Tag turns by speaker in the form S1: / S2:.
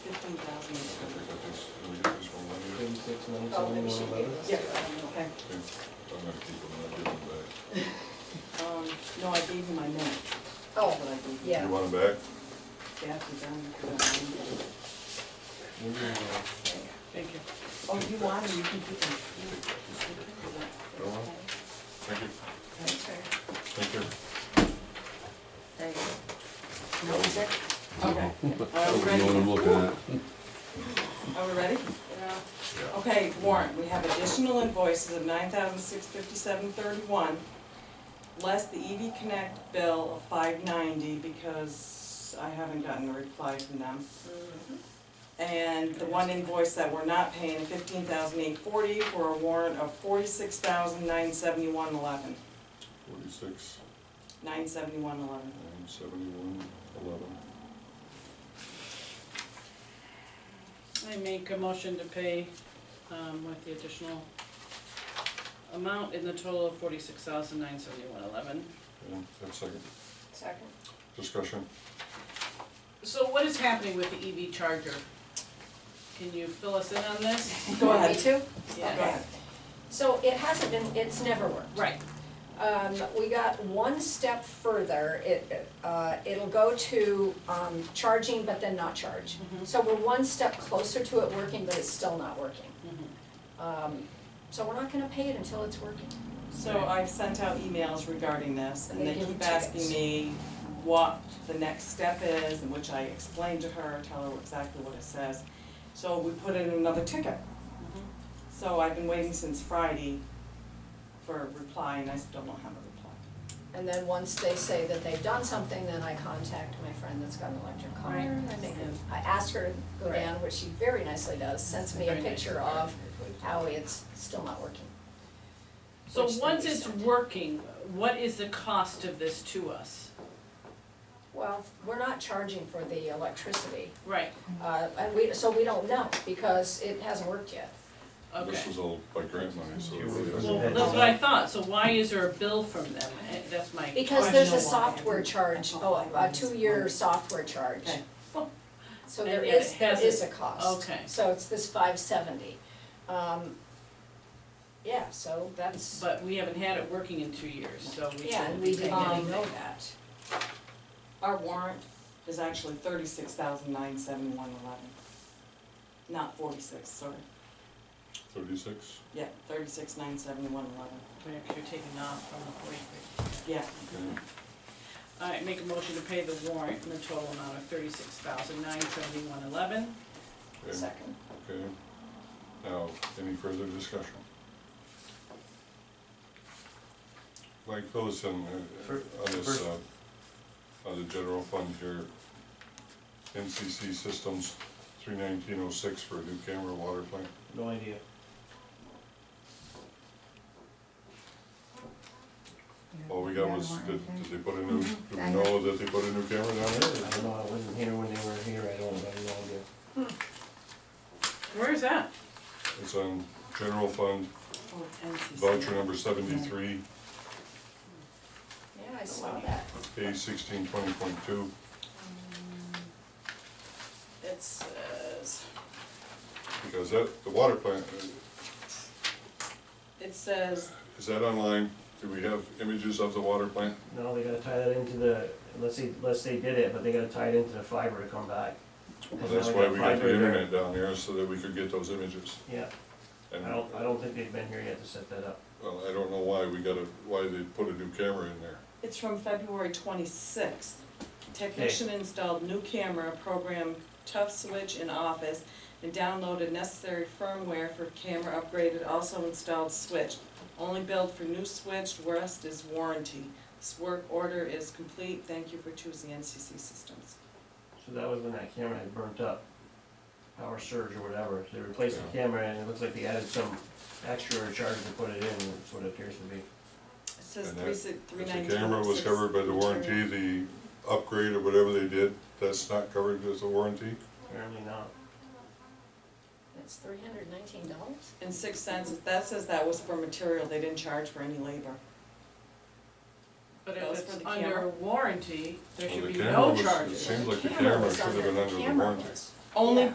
S1: ten thousand is
S2: I think
S1: good.
S2: I just, do we get this one right here?
S3: Thirty-six, nine,
S4: Oh,
S3: seven,
S4: maybe she
S3: one, eleven.
S4: gave us.
S1: Yeah,
S4: that.
S1: okay.
S2: Okay, I'm gonna keep them, I'll give them back.
S1: Um, no, I gave you my note.
S4: Oh,
S1: But I gave you-
S4: Yeah.
S2: You want them back?
S1: Kathy, Don, you got mine.
S3: Maybe, uh,
S1: Thank you. Oh, you want them, you can keep them.
S2: Go on. Thank you,
S4: That's right.
S2: thank you.
S4: There you go.
S1: No, is it? Okay.
S5: That
S1: Are we
S5: was the
S1: ready?
S5: one I'm looking at.
S1: Are we ready? Okay, warrant, we have additional invoices of nine thousand six fifty-seven thirty-one, less the EV Connect bill of five ninety, because I haven't gotten a reply from them. And the one invoice that we're not paying, fifteen thousand eight forty, for a warrant of forty-six thousand nine seventy-one eleven,
S2: Forty-six,
S1: nine seventy-one eleven.
S2: nine, seventy-one, eleven.
S6: I make a motion to pay um, with the additional amount in the total of forty-six thousand nine seventy-one eleven.
S2: Okay, have a second.
S4: Second.
S2: Discussion,
S6: So what is happening with the EV charger? Can you fill us in on this?
S1: Go ahead.
S4: Me too?
S6: Yeah.
S4: Okay. So it hasn't been, it's never worked.
S6: Right,
S4: Um, we got one step further, it, uh, it'll go to, um, charging, but then not charge.
S6: Mm-hmm.
S4: So we're one step closer to it working, but it's still not working.
S6: Mm-hmm.
S4: Um, so we're not gonna pay it until it's working.
S1: So I've sent out emails regarding this, and they
S4: They give you
S1: keep asking
S4: tickets.
S1: me what the next step is, and which I explained to her, tell her exactly what it says. So we put in another ticket. So I've been waiting since Friday for a reply, and I still don't have a reply.
S4: And then once they say that they've done something, then I contact my friend that's got an electric car.
S6: Right.
S4: and I make a- I ask her to go
S6: Right.
S4: down, which she very nicely does, sends me a
S6: Very nice.
S4: picture of how it's still not working.
S6: so
S4: Which they
S6: once it's
S4: sent.
S6: working, what is the cost of this to us?
S4: Well, we're not charging for the electricity,
S6: Right,
S4: uh, and we, so we don't know, because it hasn't worked yet.
S6: okay.
S2: this was all by grant money, so. it really
S6: Well,
S2: doesn't-
S6: that's what I thought, so why is there a bill from them? Eh, That's my
S4: Because there's a
S1: Question why.
S4: software charge, oh, a two-year software charge.
S1: Okay.
S4: So
S6: And
S4: there
S6: yet
S4: is,
S6: it
S4: there is a
S6: hasn't.
S4: cost.
S6: Okay.
S4: So it's this five seventy. Um, yeah, so that's,
S6: But we haven't had it working in two years, so we um,
S4: yeah,
S6: shouldn't
S4: and
S6: be
S4: we didn't
S6: paying
S4: even
S6: anything.
S4: know that.
S1: Our warrant is actually thirty-six thousand nine seventy-one eleven. Not forty-six, sorry.
S2: Thirty-six,
S1: Yeah, thirty-six nine seventy-one eleven.
S6: Right, 'cause you're taking off from the forty-three.
S1: Yeah.
S2: okay,
S6: All right, make a motion to pay the warrant in the total amount of thirty-six thousand nine seventy-one eleven.
S2: okay,
S4: Second.
S2: okay. Now, any further discussion? Like Phyllis and, uh,
S5: Fir-
S2: on this,
S5: first-
S2: uh, on the general fund here, NCC Systems, three nineteen oh six for a new camera water plant.
S3: No idea.
S2: All we got was, did, did they put a new, do we
S7: I
S2: know that they put a new camera down
S3: I
S2: there?
S3: don't know, I wasn't here when they were here, I don't, I have no idea.
S6: Where is that?
S2: It's on general fund,
S1: Oh, NCC.
S2: voucher number seventy-three,
S4: Yeah, I saw that.
S2: A sixteen twenty point two.
S1: Um,
S6: It says,
S2: Because that, the water plant, uh,
S1: It says
S2: is that online? Do we have images of the water plant?
S3: No, they gotta tie that into the, unless they, unless they did it, but they gotta tie it into the fiber to come back.
S2: Well,
S3: There's
S2: that's
S3: no
S2: why we got
S3: fiber
S2: the
S3: there.
S2: internet down there, so that we could get those images.
S3: Yeah,
S2: And,
S3: I
S2: well,
S3: don't, I don't think they've been here yet to set that up.
S2: I don't know why we gotta, why they put a new camera in there.
S1: It's from February twenty-sixth. Technician installed new camera, programmed tough switch in office, and downloaded necessary firmware for camera upgraded, also installed switch. Only billed for new switch, rest is warranty. This work order is complete, thank you for choosing NCC Systems.
S3: So that was when that camera had burnt up, power surge or whatever, so they replaced the camera and it looks like they added some extra charge to put it in, that's what it appears to be.
S1: It says
S2: And
S1: three
S2: that-
S1: six, three
S2: If
S1: ninety-six.
S2: the camera was covered by the warranty, the upgrade or whatever they did, that's not covered as a warranty?
S3: Apparently not.
S4: That's three hundred nineteen dollars?
S1: And six cents, that says that was for material, they didn't charge for any labor.
S6: but
S1: That
S6: if
S1: was for
S6: it's
S1: the
S6: under
S1: camera.
S6: warranty, there
S2: Well,
S6: should
S2: the
S6: be
S2: camera
S6: no
S2: was- it
S6: charges.
S2: seems like the camera should have been under the warranty.
S1: Only